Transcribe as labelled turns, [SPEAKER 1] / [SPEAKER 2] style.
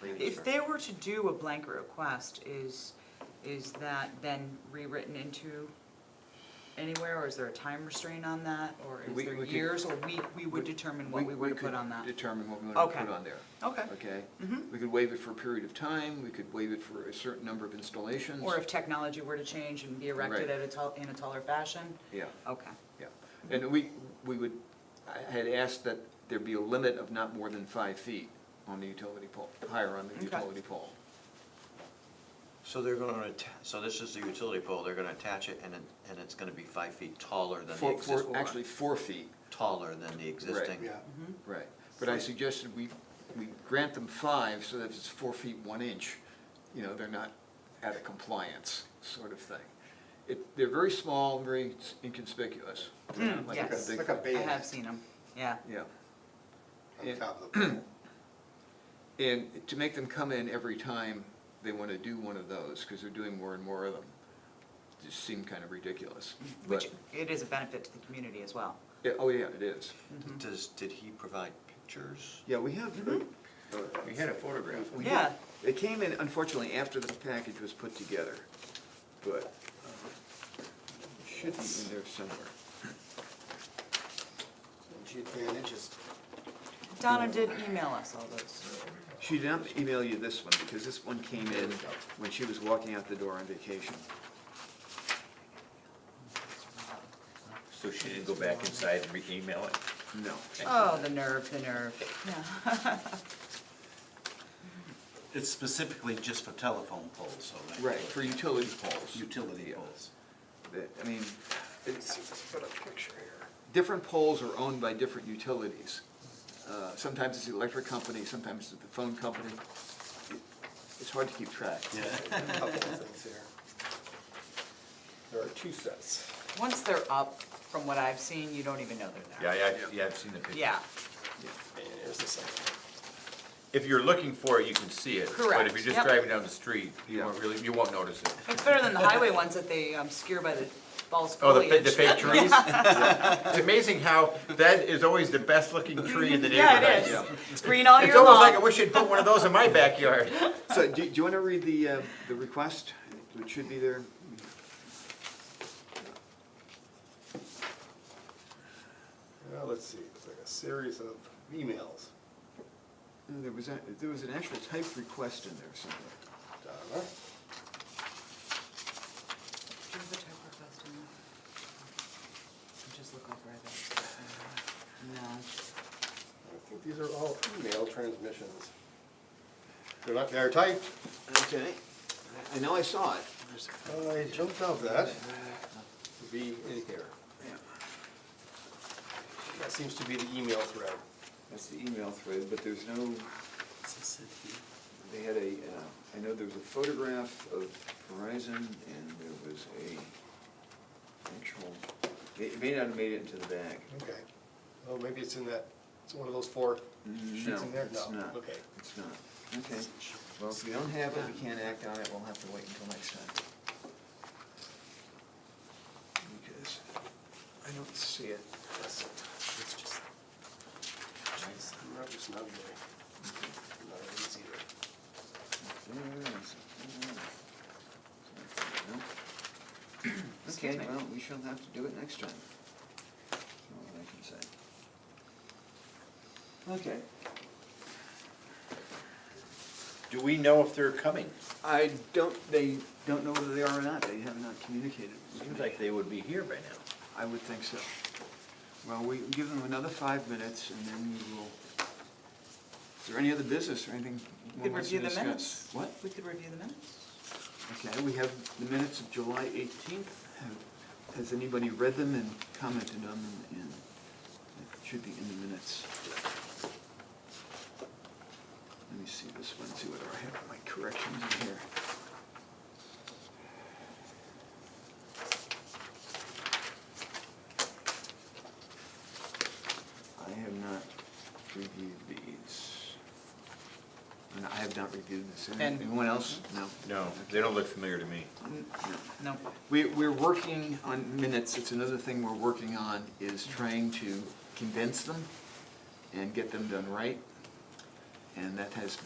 [SPEAKER 1] Really
[SPEAKER 2] If
[SPEAKER 1] sure.
[SPEAKER 2] they were to do a blanket request, is, is that then rewritten into anywhere, or is there a time restraint on that? Or is
[SPEAKER 1] We-
[SPEAKER 2] there
[SPEAKER 1] we could-
[SPEAKER 2] years, or we, we would determine what we were to
[SPEAKER 1] could
[SPEAKER 2] put on that?
[SPEAKER 1] Determine what we were to
[SPEAKER 2] Okay.
[SPEAKER 1] put on there.
[SPEAKER 2] Okay.
[SPEAKER 1] Okay?
[SPEAKER 2] Mhm.
[SPEAKER 1] We could waive it for a period of time, we could waive it for a certain number of installations.
[SPEAKER 2] Or if technology were to change and be erected
[SPEAKER 1] Right.
[SPEAKER 2] at a tall, in a taller fashion?
[SPEAKER 1] Yeah,
[SPEAKER 2] Okay,
[SPEAKER 1] yeah. And we, we would, I had asked that there be a limit of not more than five feet on the utility pole, higher on the
[SPEAKER 2] Okay.
[SPEAKER 1] utility pole.
[SPEAKER 3] So they're gonna, atta- so this is the utility pole, they're gonna attach it and it, and it's gonna be five feet taller than the
[SPEAKER 1] Four,
[SPEAKER 3] existing.
[SPEAKER 1] four, actually four feet,
[SPEAKER 3] Taller than the existing.
[SPEAKER 4] Yeah,
[SPEAKER 2] Mm-hmm.
[SPEAKER 1] right. But I suggested we, we grant them five so that if it's four feet, one inch, you know, they're not out of compliance sort of thing. It, they're very small, very inconspicuous. They're not like a
[SPEAKER 2] Mm, Hmm, yes.
[SPEAKER 1] big
[SPEAKER 4] Like a
[SPEAKER 1] thing.
[SPEAKER 2] I
[SPEAKER 4] Yeah.
[SPEAKER 2] have seen them, yeah.
[SPEAKER 1] Yeah.
[SPEAKER 4] on top of the pole.
[SPEAKER 1] And to make them come in every time they want to do one of those, because they're doing more and more of them, just seemed kind of ridiculous.
[SPEAKER 2] Which,
[SPEAKER 1] But,
[SPEAKER 2] it is a benefit to the community as well. Mm-hmm.
[SPEAKER 1] yeah, oh yeah, it is.
[SPEAKER 5] Mm-hmm.
[SPEAKER 3] Does, did he provide pictures?
[SPEAKER 1] Yeah, we have,
[SPEAKER 3] Mm-hmm. We had a photograph.
[SPEAKER 1] we
[SPEAKER 2] Yeah.
[SPEAKER 1] had- it came in unfortunately after this package was put together, but uh, it should be in there somewhere.
[SPEAKER 4] She had ten inches.
[SPEAKER 2] Donna did email us all those.
[SPEAKER 1] She did not email you this one, because this one came in when she was walking out the door on vacation.
[SPEAKER 5] So she didn't go back inside and re-email it?
[SPEAKER 1] No.
[SPEAKER 2] Oh, the nerve, the nerve, yeah.
[SPEAKER 3] It's specifically just for telephone poles, so. that-
[SPEAKER 1] Right, for utility poles.
[SPEAKER 3] Utility poles.
[SPEAKER 1] that- I mean, it's. Different poles are owned by different utilities. Uh, Sometimes it's the electric company, sometimes it's the phone company. It's hard to keep track.
[SPEAKER 4] Couple of things here. There are two sets.
[SPEAKER 2] Once they're up, from what I've seen, you don't even know they're
[SPEAKER 5] Yeah,
[SPEAKER 2] there.
[SPEAKER 5] I- I- yeah, I've seen the picture.
[SPEAKER 2] Yeah,
[SPEAKER 4] And here's the second.
[SPEAKER 5] If you're looking for it, you can see it. But
[SPEAKER 2] Correct,
[SPEAKER 5] if you're
[SPEAKER 2] yep.
[SPEAKER 5] just driving down the street, you
[SPEAKER 1] Yeah.
[SPEAKER 5] won't really, you won't notice it.
[SPEAKER 2] it's better than the highway ones that they obscure by the false
[SPEAKER 5] Oh, the, fa- the
[SPEAKER 2] foliage.
[SPEAKER 5] fake trees? It's amazing how, that is always the best-looking tree in the
[SPEAKER 2] Yeah,
[SPEAKER 5] neighborhood.
[SPEAKER 2] it is. It's green all
[SPEAKER 5] It's
[SPEAKER 2] year
[SPEAKER 5] almost like I
[SPEAKER 2] long.
[SPEAKER 5] wish you'd put one of those in my backyard.
[SPEAKER 1] So do do you want to read the, uh, the request? It should be there.
[SPEAKER 4] Well, let's see, it's like a series of emails.
[SPEAKER 1] There was, a- there was an actual typed request in there somewhere.
[SPEAKER 4] Donna,
[SPEAKER 2] Just look up right there. No,
[SPEAKER 4] I think these are all email transmissions. They're not, they're typed.
[SPEAKER 1] Okay. I know I saw it.
[SPEAKER 4] I jumped off that. To be in here. That seems to be the email thread.
[SPEAKER 1] That's the email thread, but there's no, they had a, uh, I know there was a photograph of Verizon and there was a actual, it may not have made it into the bag.
[SPEAKER 4] Okay. Oh, maybe it's in that, it's one of those four
[SPEAKER 1] No,
[SPEAKER 4] sheets in there?
[SPEAKER 1] it's not.
[SPEAKER 4] Okay.
[SPEAKER 1] It's not. Okay. Well, if we don't have it, we can't act on it, we'll have to wait until next time. Because I don't see it.
[SPEAKER 4] That's it. It's just. Not just not there. Not easy to-
[SPEAKER 1] Okay,
[SPEAKER 2] Excuse me.
[SPEAKER 1] well, we shall have to do it next time. That's all that I can say. Okay.
[SPEAKER 5] Do we know if they're coming?
[SPEAKER 1] I don't, they don't know whether they are or not, they have not communicated. with
[SPEAKER 5] Seems
[SPEAKER 1] me.
[SPEAKER 5] like they would be here by now.
[SPEAKER 1] I would think so. Well, we give them another five minutes and then we will, is there any other business or anything?
[SPEAKER 2] we
[SPEAKER 1] one
[SPEAKER 2] could
[SPEAKER 1] wants to
[SPEAKER 2] review the
[SPEAKER 1] discuss?
[SPEAKER 2] minutes.
[SPEAKER 1] What?
[SPEAKER 2] We could review the minutes.
[SPEAKER 1] Okay, we have the minutes of July 18th. Has anybody read them and commented on them? And it should be in the minutes. Let me see this one, see whether I have my corrections in here. I have not reviewed these. And I have not reviewed this.
[SPEAKER 2] And-
[SPEAKER 1] Anyone else? No.
[SPEAKER 5] No, they don't look familiar to me.
[SPEAKER 2] No,
[SPEAKER 1] We, we're working on minutes, it's another thing we're working on, is trying to condense them and get them done right. And that has